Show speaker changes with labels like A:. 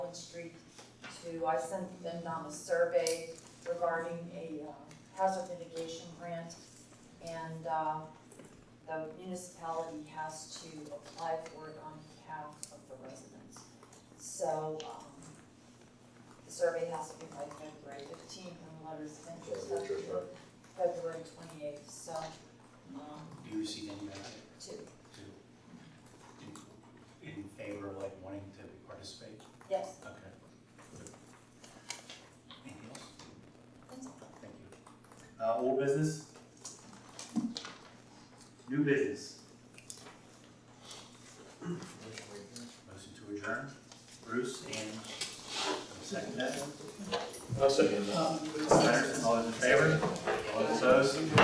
A: to, I sent them down a survey regarding a um, hazard mitigation grant. And um, the municipality has to apply for it on behalf of the residents. So um, the survey has to be by February fifteenth and the letters of interest have to be February twenty-eighth, so um,
B: You received any of that
A: two,
B: too? In- In favor of like wanting to participate?
A: yes,
B: Okay. Anything else?
A: that's all.
B: Thank you. Uh, old business? New business? Motion to adjourn. Bruce and second that.
C: I'll second that.
B: Patterson, all those in favor? All those opposed?